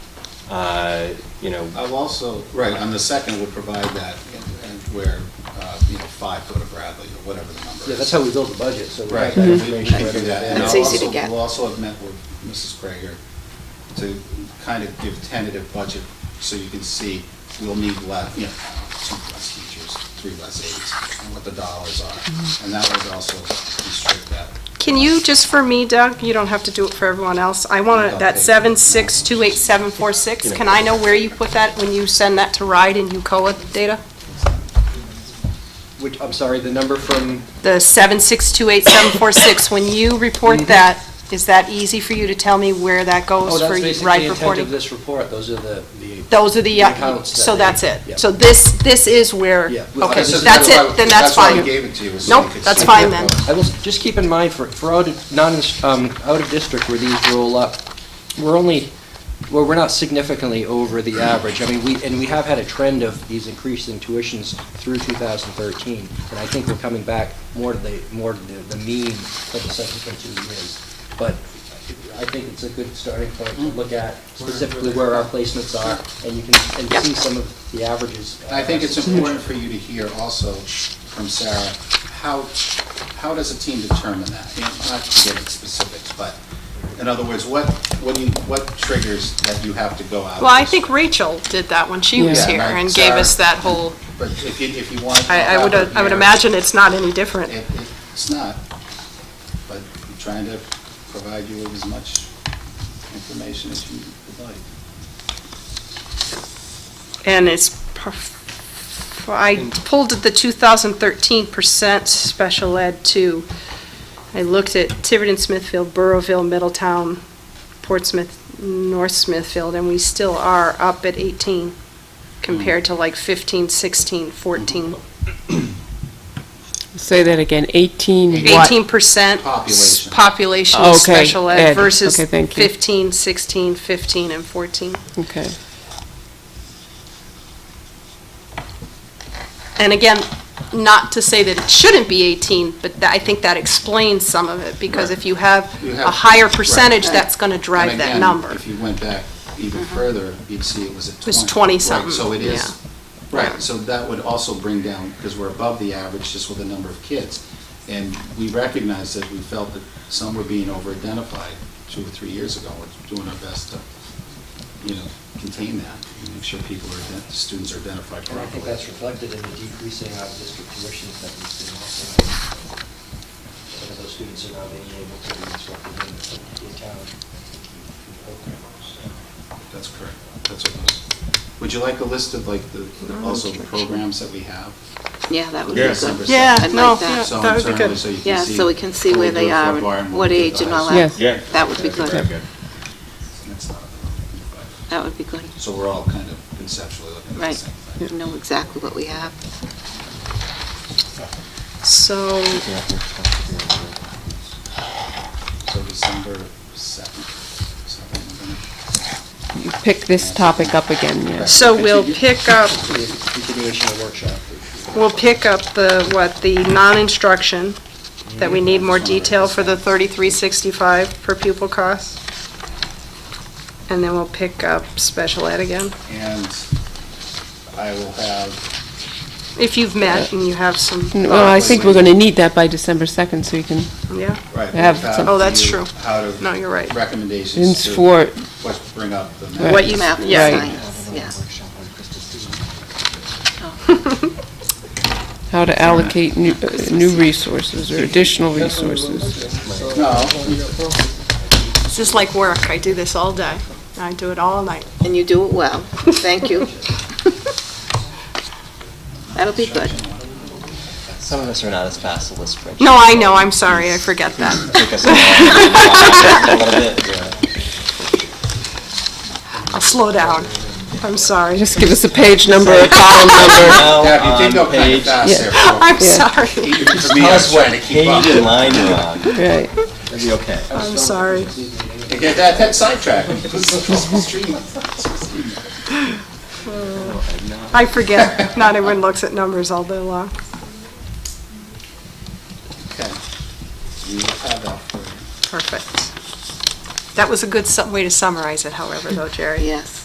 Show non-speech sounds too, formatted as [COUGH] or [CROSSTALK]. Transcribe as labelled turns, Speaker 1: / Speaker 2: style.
Speaker 1: uh, you know,
Speaker 2: I've also, right, on the second would provide that, and- and where, uh, you know, five foot of Bradley or whatever the number is.
Speaker 3: Yeah, that's how we build the budget, so we
Speaker 2: Right.
Speaker 3: have that
Speaker 2: we-
Speaker 3: information.
Speaker 2: we
Speaker 3: right
Speaker 2: do
Speaker 3: in
Speaker 2: that.
Speaker 3: the
Speaker 2: And
Speaker 3: back.
Speaker 4: Mm-hmm. It's
Speaker 2: I'll
Speaker 4: easy to
Speaker 2: also-
Speaker 4: get.
Speaker 2: We'll also have met with Mrs. Krager to kind of give tentative budget, so you can see, we'll need less, you know, two less teachers, three less aides, and what the dollars are. And that would also constrict that.
Speaker 4: Can you, just for me, Doug, you don't have to do it for everyone else, I want to that seven six two eight seven four six, can I know where you put that when you send that to RIDE and UCOA data?
Speaker 3: Which, I'm sorry, the number from,
Speaker 4: The seven six two eight seven four six, when you report that, is that easy for you to tell me where that
Speaker 3: oh,
Speaker 4: goes for
Speaker 3: that's
Speaker 4: RIDE
Speaker 3: basically the intent
Speaker 4: reporting?
Speaker 3: of this report, those are the, the.
Speaker 4: Those are the,
Speaker 3: the
Speaker 4: uh,
Speaker 3: accounts that
Speaker 4: so
Speaker 3: they-
Speaker 4: that's it.
Speaker 3: yeah.
Speaker 4: So this, this is where,
Speaker 3: Yeah.
Speaker 4: okay,
Speaker 2: This is
Speaker 4: that's
Speaker 2: why-
Speaker 4: it, then that's
Speaker 2: why we
Speaker 4: fine.
Speaker 2: gave it to you, was so you
Speaker 4: Nope,
Speaker 2: could
Speaker 4: that's
Speaker 2: see.
Speaker 4: fine then.
Speaker 3: I will, s- just keep in mind, for, for out of, non, um, out of district where these roll up, we're only, well, we're not significantly over the average. I mean, we, and we have had a trend of these increasing tuitions through 2013, and I think we're coming back more to the, more to the the mean for the subsequent two years. But I think it's a good starting point to look at specifically where our placements are, and you can, and see some of the averages.
Speaker 2: And I think it's important for you to hear also from Sarah, how, how does a team determine that? You know, Not to get into specifics, but in other words, what, what do you, what triggers that you have to go out?
Speaker 4: Well, I think Rachel did that when she was
Speaker 2: Yeah,
Speaker 4: here
Speaker 2: right,
Speaker 4: and gave us
Speaker 2: Sarah.
Speaker 4: that whole,
Speaker 2: But if you, if you want.
Speaker 4: I, I would, I would imagine it's not any different.
Speaker 2: It, it's not, but I'm trying to provide you with as much information as you would like.
Speaker 4: And it's, perf- I pulled the 2013 percent special ed too. I looked at Tiverton, Smithfield, Burrowville, Middletown, Portsmouth, North Smithfield, and we still are up at 18 compared to like 15, 16, 14.
Speaker 5: Say that again, 18 what?
Speaker 4: 18 percent
Speaker 2: Population.
Speaker 4: population
Speaker 5: Oh, Okay,
Speaker 4: of special ed
Speaker 5: ed.
Speaker 4: versus
Speaker 5: Okay, thank you.
Speaker 4: 15, 16, 15, and 14.
Speaker 5: Okay.
Speaker 4: And again, not to say that it shouldn't be 18, but tha- I think that explains some of it, because if you have
Speaker 2: You
Speaker 4: a
Speaker 2: have-
Speaker 4: higher
Speaker 2: right.
Speaker 4: percentage, that's going to drive
Speaker 2: And
Speaker 4: that
Speaker 2: again,
Speaker 4: number. Mm-hmm.
Speaker 2: If you went back even further, you'd see it was at 20.
Speaker 4: was
Speaker 2: Right,
Speaker 4: 20-something,
Speaker 2: So it
Speaker 4: yeah.
Speaker 2: is, right, so that would also bring down, because we're above the average just with the number of kids. And we recognized that we felt that some were being over-identified two or three years ago. We're doing our best to, you know, contain that, and make sure people are, ident- students are identified
Speaker 3: And I think
Speaker 2: properly.
Speaker 3: that's reflected in the decreasing out of district tuitions that we've seen also. Some of those students are now being able to be instructed in the town programs.
Speaker 2: That's correct, that's what it is. Would you like a list of like the, the- also the programs that we have?
Speaker 6: Yeah, that would be
Speaker 2: Yeah.
Speaker 6: good.
Speaker 4: Yeah,
Speaker 6: I'd
Speaker 4: no,
Speaker 6: like that.
Speaker 2: So
Speaker 4: yeah, that would be
Speaker 2: internally,
Speaker 4: good.
Speaker 2: so you can see.
Speaker 6: Yeah, so we can see
Speaker 2: what
Speaker 6: where
Speaker 2: we
Speaker 6: they
Speaker 2: do
Speaker 6: are,
Speaker 2: for Barton,
Speaker 6: and
Speaker 2: what
Speaker 6: what
Speaker 2: we do
Speaker 6: age
Speaker 2: for
Speaker 6: and all
Speaker 2: Hudson.
Speaker 6: that.
Speaker 5: Yes.
Speaker 7: Yeah.
Speaker 6: That would be
Speaker 7: Very
Speaker 6: good.
Speaker 7: good.
Speaker 2: That's not-
Speaker 6: That would be good.
Speaker 2: So we're all kind of conceptually looking at the
Speaker 6: Right.
Speaker 2: same thing.
Speaker 6: You know exactly what we have.
Speaker 4: So,
Speaker 2: So December 7th, so I think we're gonna-
Speaker 5: You pick this topic up again, yes.
Speaker 4: so we'll pick up,
Speaker 3: Continuation of workshop.
Speaker 4: we'll pick up the, what, the non-instruction, that we need more detail for the 3365 per pupil cost. And then we'll pick up special ed again,
Speaker 2: And I will have,
Speaker 4: if you've met and you have some,
Speaker 5: Well, I think we're going to need that by December 2nd, so you can,
Speaker 4: yeah,
Speaker 2: right.
Speaker 5: I have
Speaker 2: we'll
Speaker 5: some-
Speaker 4: Oh, that's
Speaker 2: you
Speaker 4: true.
Speaker 2: How to.
Speaker 4: No, you're right.
Speaker 2: Recommendations
Speaker 5: it's
Speaker 2: to.
Speaker 5: for,
Speaker 2: What to bring up. the next-
Speaker 4: what you,
Speaker 6: Math and
Speaker 4: yeah.
Speaker 6: science, yeah.
Speaker 5: how to allocate new, uh, new resources or additional resources.
Speaker 2: No,
Speaker 4: It's just like work, I do this all day, I do it all night.
Speaker 6: And you do it well. Thank you. That'll be good.
Speaker 8: Some of us are not as fast as the spreadsheet.
Speaker 4: No, I know, I'm sorry, I forget that.
Speaker 8: Took us a while to get it, yeah.
Speaker 4: I'll slow down, I'm sorry,
Speaker 5: Just give us a page number, a column number.
Speaker 2: yeah, you did
Speaker 8: Now
Speaker 2: go
Speaker 8: on
Speaker 2: kind of
Speaker 8: page, tell
Speaker 2: fast there. for-
Speaker 4: [LAUGHS] I'm sorry,
Speaker 2: even For me, I was
Speaker 8: us what
Speaker 2: trying to keep
Speaker 8: page
Speaker 2: up.
Speaker 8: and line you're on.
Speaker 5: Right.
Speaker 8: It'll be okay.
Speaker 4: I'm sorry.
Speaker 2: That, that-
Speaker 8: [LAUGHS]
Speaker 2: that sidetracked. It was- it was streaming.
Speaker 4: I forget, not everyone looks at numbers all day long.
Speaker 2: Okay. We will have that for you.
Speaker 4: Perfect. That was a good su- way to summarize it, however, though, Jerry.
Speaker 6: Yes.